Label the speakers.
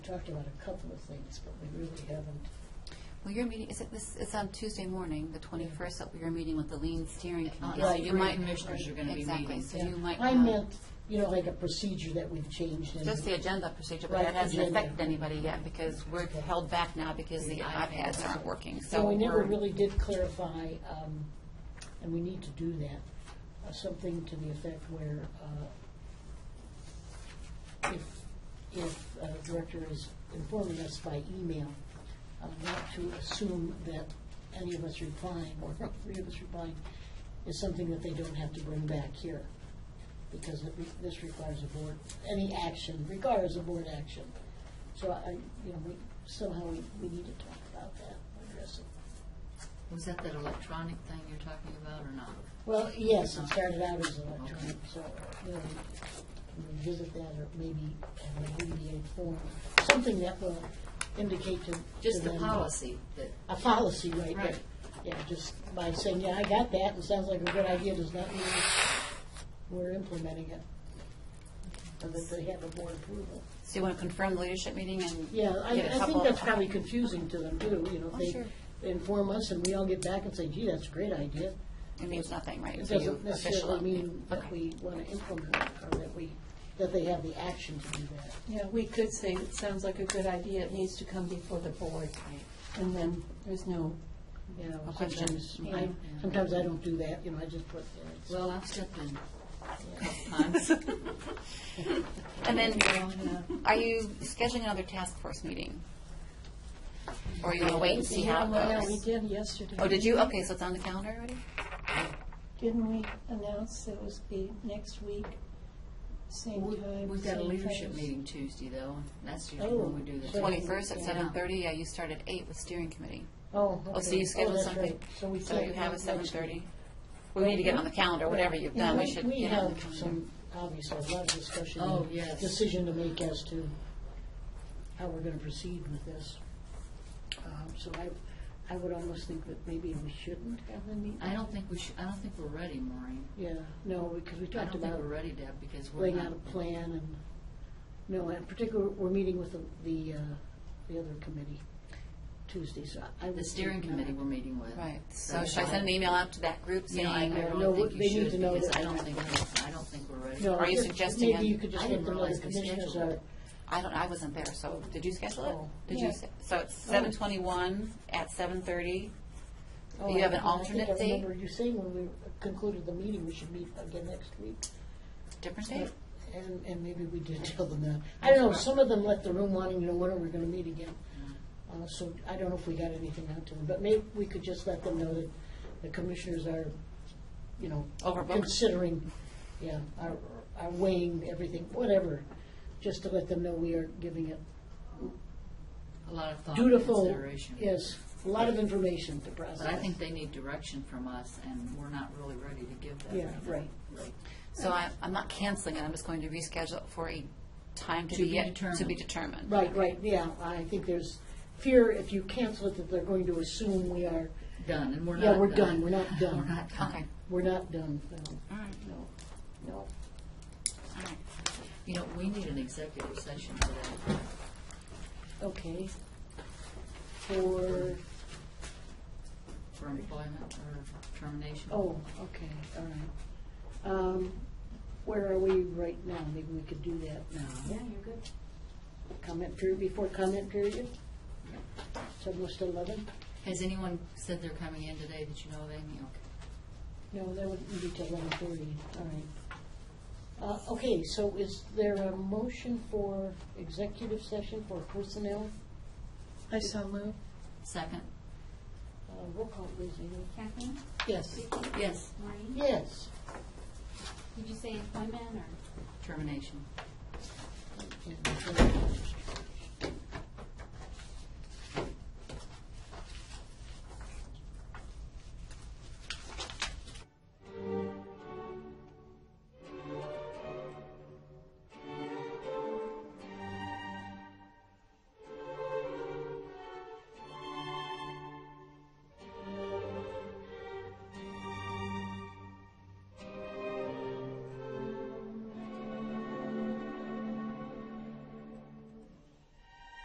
Speaker 1: talked about a couple of things, but we really haven't.
Speaker 2: Well, your meeting, is it this, it's on Tuesday morning, the 21st, that you're meeting with the Lean Steering Committee. So
Speaker 1: Uh, Right.
Speaker 2: you
Speaker 3: Three
Speaker 2: might-
Speaker 3: commissioners are gonna be
Speaker 2: Exactly,
Speaker 3: meeting.
Speaker 2: so you
Speaker 1: Yeah.
Speaker 2: might.
Speaker 1: I
Speaker 2: not-
Speaker 1: meant, you know, like a procedure that we've changed. and-
Speaker 2: Just the agenda procedure, but
Speaker 1: Right,
Speaker 2: that hasn't
Speaker 1: agenda.
Speaker 2: affected anybody yet because we're held back now because the iPads aren't working, so.
Speaker 1: So we never
Speaker 2: we're-
Speaker 1: really did clarify, um, and we need to do that, uh, something to the effect where uh, if, if a director is informing us by email, uh, not to assume that any of us replying, or all three of us replying, is something that they don't have to bring back here, because it re- this requires a board, any action requires a board action. So I, you know, we, somehow we, we need to talk about that, address it.
Speaker 3: Was that that electronic thing you're talking about or not?
Speaker 1: Well, yes, it started out as electronic, so, you know, we can revisit that or maybe have an abbreviated form, something that will indicate to. to
Speaker 3: Just the
Speaker 1: them-
Speaker 3: policy that,
Speaker 1: A policy, right,
Speaker 3: Right.
Speaker 1: but, Yeah, just by saying, yeah, I got that, and sounds like a good idea, does not mean we're implementing it. Or that they have a board approval.
Speaker 2: So you want to confirm the leadership meeting and?
Speaker 1: Yeah, I,
Speaker 2: get a
Speaker 1: I think
Speaker 2: couple-
Speaker 1: that's probably confusing to them too, you know,
Speaker 2: Oh,
Speaker 1: if
Speaker 2: sure.
Speaker 1: they inform us and we all get back and say, gee, that's a great idea.
Speaker 2: It means nothing, right?
Speaker 1: It
Speaker 2: So you
Speaker 1: doesn't
Speaker 2: official-
Speaker 1: necessarily mean that
Speaker 2: Okay.
Speaker 1: we want to implement it or that we, that they have the action to do that.
Speaker 4: Yeah, we could say, it sounds like a good idea, it needs to come before the board, and then there's no,
Speaker 1: You know,
Speaker 2: A question.
Speaker 1: sometimes, I, sometimes I don't do that, you know, I just put, you know, it's-
Speaker 3: well, I've stepped in a couple times.
Speaker 2: And then,
Speaker 3: Yeah.
Speaker 2: are you scheduling another task force meeting? Or you want to wait and see how
Speaker 4: Yeah,
Speaker 2: it
Speaker 4: we
Speaker 2: goes?
Speaker 4: did yesterday.
Speaker 2: Oh, did you? Okay, so it's on the calendar already?
Speaker 4: Didn't we announce that it was be next week, same time?
Speaker 3: We've got a
Speaker 4: same
Speaker 3: leadership
Speaker 4: place?
Speaker 3: meeting Tuesday though, and that's usually when we do
Speaker 1: Oh,
Speaker 3: that.
Speaker 1: so-
Speaker 2: Twenty-first at
Speaker 1: Yeah.
Speaker 2: seven thirty, yeah, you start at eight with steering committee.
Speaker 1: oh,
Speaker 2: Oh, so
Speaker 1: okay.
Speaker 2: you scheduled
Speaker 1: that's
Speaker 2: something,
Speaker 1: right. So we
Speaker 2: so
Speaker 1: can't
Speaker 2: you have a
Speaker 1: meet
Speaker 2: seven
Speaker 1: next
Speaker 2: thirty.
Speaker 1: week.
Speaker 2: We need to get on the calendar, whatever you've done, we
Speaker 1: Yeah,
Speaker 2: should
Speaker 1: We
Speaker 2: get on the
Speaker 1: have
Speaker 2: calendar.
Speaker 1: some, obviously, a lot of discussion.
Speaker 3: Oh,
Speaker 1: and
Speaker 3: yes.
Speaker 1: Decision to make as to how we're going to proceed with this. Um, So I, I would almost think that maybe we shouldn't have the meeting.
Speaker 3: I don't think we should, I don't think we're ready, Maureen.
Speaker 1: Yeah, no, because we
Speaker 3: I
Speaker 1: talked
Speaker 3: don't think
Speaker 1: about
Speaker 3: we're ready, Deb, because we're
Speaker 1: laying
Speaker 3: not.
Speaker 1: out a plan and, no, in particular, we're meeting with the, the, uh, the other committee Tuesday, so I would.
Speaker 3: The steering
Speaker 1: think
Speaker 3: committee we're
Speaker 1: not.
Speaker 3: meeting with.
Speaker 2: Right, so should I send an email out to that group
Speaker 3: You know, I I
Speaker 2: saying,
Speaker 1: No,
Speaker 3: don't think
Speaker 1: they
Speaker 3: you
Speaker 1: need to
Speaker 3: should
Speaker 1: know
Speaker 3: because
Speaker 1: that
Speaker 3: I
Speaker 1: we're
Speaker 3: don't
Speaker 1: not
Speaker 3: think, we're- I don't think we're ready.
Speaker 1: No,
Speaker 2: Are you
Speaker 1: just-
Speaker 2: suggesting
Speaker 1: Maybe
Speaker 2: a-
Speaker 1: you could just
Speaker 3: I
Speaker 1: get
Speaker 3: didn't
Speaker 1: the
Speaker 3: realize
Speaker 1: other
Speaker 3: we
Speaker 1: commissioners
Speaker 3: scheduled
Speaker 1: are,
Speaker 3: it.
Speaker 2: I don't, I wasn't there, so did you schedule
Speaker 1: Oh.
Speaker 2: it? Did you,
Speaker 4: Yeah.
Speaker 2: s- so it's
Speaker 1: Oh.
Speaker 2: seven twenty-one at seven thirty?
Speaker 1: Oh,
Speaker 2: You have
Speaker 1: I-
Speaker 2: an
Speaker 1: I think
Speaker 2: alternate
Speaker 1: I
Speaker 2: date?
Speaker 1: remember you saying when we concluded the meeting, we should meet again next week.
Speaker 2: Different date?
Speaker 1: And, and maybe we did tell them that. I don't know, some of them left the room wanting to know when are we gonna meet again. Uh, so I don't know if we got anything out to them, but maybe we could just let them know that the commissioners are, you know.
Speaker 2: Overbooked.
Speaker 1: Considering, yeah, are, are weighing everything, whatever, just to let them know we are giving it
Speaker 3: A lot of thought and
Speaker 1: dutiful,
Speaker 3: consideration.
Speaker 1: yes, a lot of information to process.
Speaker 3: But I think they need direction from us, and we're not really ready to give that.
Speaker 1: Yeah,
Speaker 3: now.
Speaker 1: right.
Speaker 2: So I, I'm not canceling it, I'm just going to reschedule it for a time to
Speaker 3: To
Speaker 2: be
Speaker 3: be
Speaker 2: yet, to be
Speaker 3: determined.
Speaker 2: determined.
Speaker 1: Right, right, yeah, I think there's fear if you cancel it that they're going to assume we are,
Speaker 3: Done, and we're not.
Speaker 1: yeah, we're done, we're not done.
Speaker 3: We're not done.
Speaker 2: Okay,
Speaker 1: We're not done, no,
Speaker 2: all right,
Speaker 1: no, no.
Speaker 2: all right.
Speaker 3: You know, we need an executive session today.
Speaker 1: Okay. For,
Speaker 3: For employment or termination?
Speaker 1: oh, okay, all right. Um, Where are we right now? Maybe we could do that now.
Speaker 3: you're good.
Speaker 1: Comment period, before comment period? It's almost eleven?
Speaker 3: Has anyone said they're coming in today? Did you know of any? Okay.
Speaker 1: No, that wouldn't be till eleven thirty, all right. Uh, okay, so is there a motion for executive session for personnel?
Speaker 4: I saw move.
Speaker 3: Second?
Speaker 1: Uh, roll call, please, Amy.
Speaker 5: Kathleen?
Speaker 1: Yes.
Speaker 5: Vicki?
Speaker 3: Yes.
Speaker 5: Maureen?
Speaker 1: Yes.
Speaker 5: Did you say employment or?
Speaker 3: Termination.
Speaker 1: Okay.